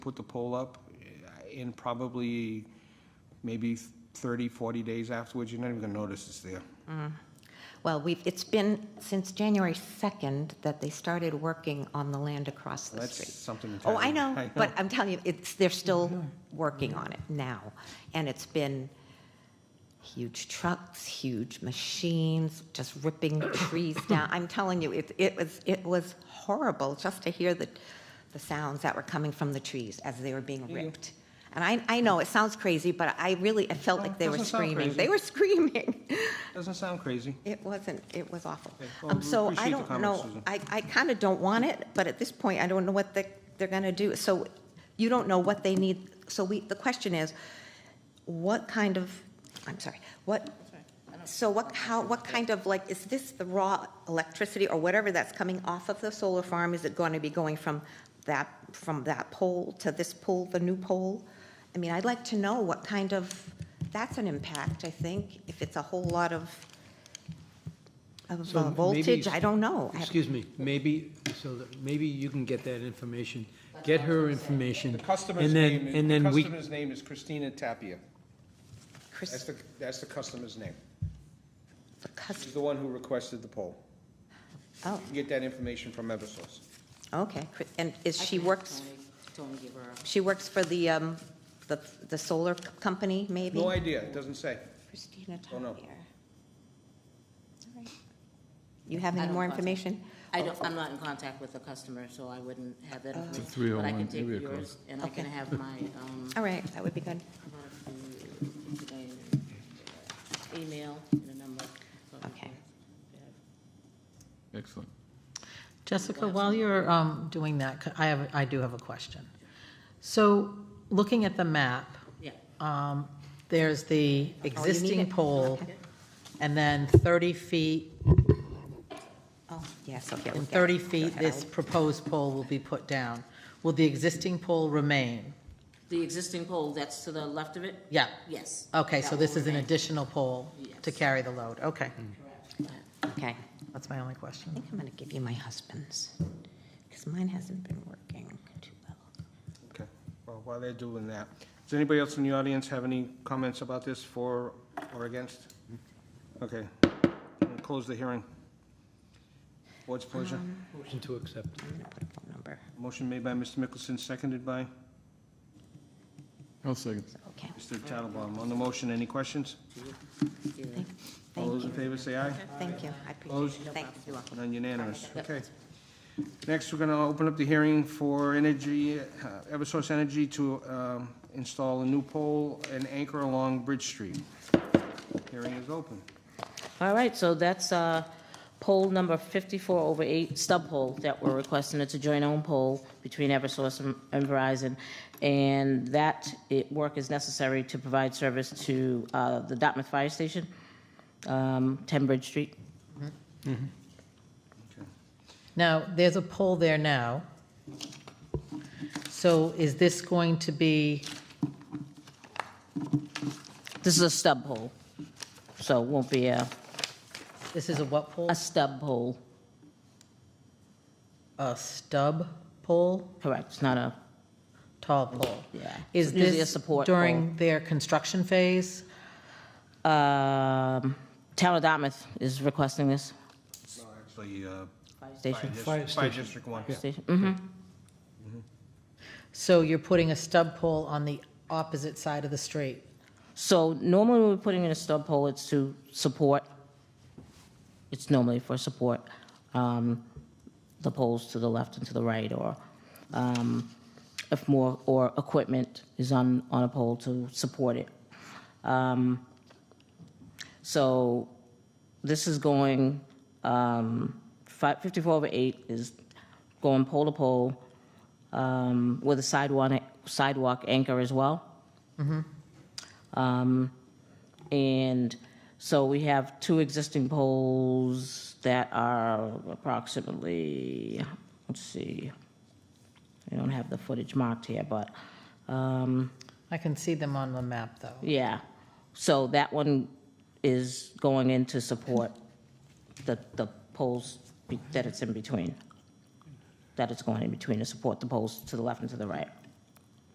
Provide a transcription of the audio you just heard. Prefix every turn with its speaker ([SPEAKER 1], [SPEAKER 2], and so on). [SPEAKER 1] put the poll up in probably maybe 30, 40 days afterwards, you're not even going to notice it's there.
[SPEAKER 2] Well, we've, it's been since January 2nd that they started working on the land across the
[SPEAKER 1] That's
[SPEAKER 2] street.
[SPEAKER 1] something
[SPEAKER 2] Oh, I
[SPEAKER 1] entirely-
[SPEAKER 2] know,
[SPEAKER 1] I
[SPEAKER 2] but
[SPEAKER 1] know.
[SPEAKER 2] I'm telling you, it's, they're still working on it now. And it's been huge trucks, huge machines, just ripping trees down. I'm telling you, it, it was, it was horrible just to hear the, the sounds that were coming from the trees as they were being ripped. And I, I know, it sounds crazy, but I really, it felt
[SPEAKER 1] No,
[SPEAKER 2] like they were
[SPEAKER 1] doesn't sound
[SPEAKER 2] screaming.
[SPEAKER 1] crazy.
[SPEAKER 2] They were screaming.
[SPEAKER 1] Doesn't sound crazy.
[SPEAKER 2] It wasn't, it was awful.
[SPEAKER 1] Okay, well,
[SPEAKER 2] Um,
[SPEAKER 1] we
[SPEAKER 2] So
[SPEAKER 1] appreciate
[SPEAKER 2] I
[SPEAKER 1] the
[SPEAKER 2] don't
[SPEAKER 1] comment,
[SPEAKER 2] know,
[SPEAKER 1] Susan.
[SPEAKER 2] I, I kind of don't want it, but at this point, I don't know what they, they're going to do. So you don't know what they need, so we, the question is, what kind of, I'm sorry, what, so what, how, what kind of, like, is this the raw electricity or whatever that's coming off of the solar farm? Is it going to be going from that, from that pole to this pole, the new pole? I mean, I'd like to know what kind of, that's an impact, I think, if it's a whole lot of of
[SPEAKER 3] So
[SPEAKER 2] uh,
[SPEAKER 3] maybe-
[SPEAKER 2] voltage, I don't know. I-
[SPEAKER 3] Excuse me, maybe, so that, maybe you can get that information, get her information.
[SPEAKER 1] The customer's
[SPEAKER 3] and then-
[SPEAKER 1] name,
[SPEAKER 3] And
[SPEAKER 1] is- the
[SPEAKER 3] then we,
[SPEAKER 1] customer's name is Christina Tapia.
[SPEAKER 2] Chris-
[SPEAKER 1] That's the, that's the customer's name.
[SPEAKER 2] the cus-
[SPEAKER 1] She's the one who requested the poll.
[SPEAKER 2] Oh,
[SPEAKER 1] You can get that information from Eversource.
[SPEAKER 2] okay, Chris- and is
[SPEAKER 4] I
[SPEAKER 2] she
[SPEAKER 4] can
[SPEAKER 2] works,
[SPEAKER 4] Tony- Tony give her a-
[SPEAKER 2] she works for the, um, the, the solar c- company, maybe?
[SPEAKER 1] No idea, it doesn't say.
[SPEAKER 2] Christina
[SPEAKER 1] Oh,
[SPEAKER 2] Tapier.
[SPEAKER 1] no.
[SPEAKER 2] All right. You have
[SPEAKER 4] I
[SPEAKER 2] any
[SPEAKER 4] don't
[SPEAKER 2] more
[SPEAKER 4] know.
[SPEAKER 2] information?
[SPEAKER 4] I don't, I'm not in contact with the customer, so I wouldn't have that information.
[SPEAKER 5] It's a 301
[SPEAKER 4] But I can
[SPEAKER 5] area
[SPEAKER 4] take
[SPEAKER 5] code.
[SPEAKER 4] yours, and I can
[SPEAKER 2] Oh. Okay.
[SPEAKER 4] have my, um,
[SPEAKER 2] All right, that would be good.
[SPEAKER 4] email and the number.
[SPEAKER 2] Okay.
[SPEAKER 5] Excellent.
[SPEAKER 6] Jessica, while you're um, doing that, c- I have, I do have a question. So, looking at the map,
[SPEAKER 4] Yeah,
[SPEAKER 6] um, there's
[SPEAKER 4] Oh,
[SPEAKER 6] the existing
[SPEAKER 2] it.
[SPEAKER 6] pole,
[SPEAKER 2] Okay.
[SPEAKER 6] and then 30 feet,
[SPEAKER 2] Oh, yes, okay. we
[SPEAKER 6] in
[SPEAKER 2] get it.
[SPEAKER 6] 30
[SPEAKER 2] Go
[SPEAKER 6] feet,
[SPEAKER 2] ahead,
[SPEAKER 6] this
[SPEAKER 2] I'll-
[SPEAKER 6] proposed pole will be put down. Will the existing pole remain?
[SPEAKER 4] the existing pole, that's to the left of it?
[SPEAKER 6] Yeah,
[SPEAKER 4] Yes.
[SPEAKER 6] okay,
[SPEAKER 4] That
[SPEAKER 6] so this
[SPEAKER 4] will
[SPEAKER 6] is an
[SPEAKER 4] remain.
[SPEAKER 6] additional pole to
[SPEAKER 4] Yes.
[SPEAKER 6] carry the load, okay.
[SPEAKER 2] Okay.
[SPEAKER 6] That's my only question.
[SPEAKER 2] I think I'm going to give you my husband's, because mine hasn't been working too well.
[SPEAKER 1] Okay, well, while they're doing that, does anybody else in the audience have any comments about this for or against? Okay, We'll close the hearing. Board's pleasure.
[SPEAKER 2] Um.
[SPEAKER 3] motion to accept.
[SPEAKER 2] I'm going to put a phone number,
[SPEAKER 1] Motion made by Mr. Mickelson, seconded by
[SPEAKER 5] I'll second.
[SPEAKER 2] so, okay.
[SPEAKER 1] Mr. Tattelbaum. On the motion, any questions?
[SPEAKER 4] Yeah.
[SPEAKER 1] All
[SPEAKER 2] Thank
[SPEAKER 1] those in
[SPEAKER 2] you.
[SPEAKER 1] favor say aye.
[SPEAKER 2] Thank you, I
[SPEAKER 1] Opposed?
[SPEAKER 2] appreciate it. Thanks.
[SPEAKER 1] None unanimous, okay. Next, we're going to open up the hearing for Energy, uh, Eversource Energy to um, install a new pole and anchor along Bridge Street. Hearing is open.
[SPEAKER 4] All right, so that's uh, poll number 54 over 8, stub poll that we're requesting. It's a joint own poll between Eversource and- and Verizon. And that it- work is necessary to provide service to uh, the Dartmouth Fire Station, um, 10 Bridge Street.
[SPEAKER 6] Now, there's a pole there now. So is this going to be,
[SPEAKER 4] This is a stub poll, so it won't be a
[SPEAKER 6] this is a what pole?
[SPEAKER 4] a stub poll,
[SPEAKER 6] A stub pole,
[SPEAKER 4] correct? It's not a,
[SPEAKER 6] tall pole?
[SPEAKER 4] Yeah.
[SPEAKER 6] Is
[SPEAKER 4] It's usually a
[SPEAKER 6] this
[SPEAKER 4] support
[SPEAKER 6] during their construction phase?
[SPEAKER 4] um, Town of Dartmouth is requesting this
[SPEAKER 1] Actually, uh,
[SPEAKER 4] fire station.
[SPEAKER 3] Fire
[SPEAKER 1] Fire
[SPEAKER 3] station.
[SPEAKER 1] District One.
[SPEAKER 4] Station, mhm.
[SPEAKER 6] So you're putting a stub pole on the opposite side of the street?
[SPEAKER 4] So normally when we're putting in a stub poll, it's to support, it's normally for support, um, the poles to the left and to the right, or, um, if more, or equipment is on, on a pole to support it. Um, So this is going, um, fi- 54 over 8 is going pole to pole, um, with a sidewalk, sidewalk anchor as well. Um, And so we have two existing poles that are approximately, let's see, I don't have the footage marked here, but, um,
[SPEAKER 6] I can see them on the map, though.
[SPEAKER 4] yeah. So that one is going in to support the, the poles be- that it's in between, that it's going in between to support the poles to the left and to the right.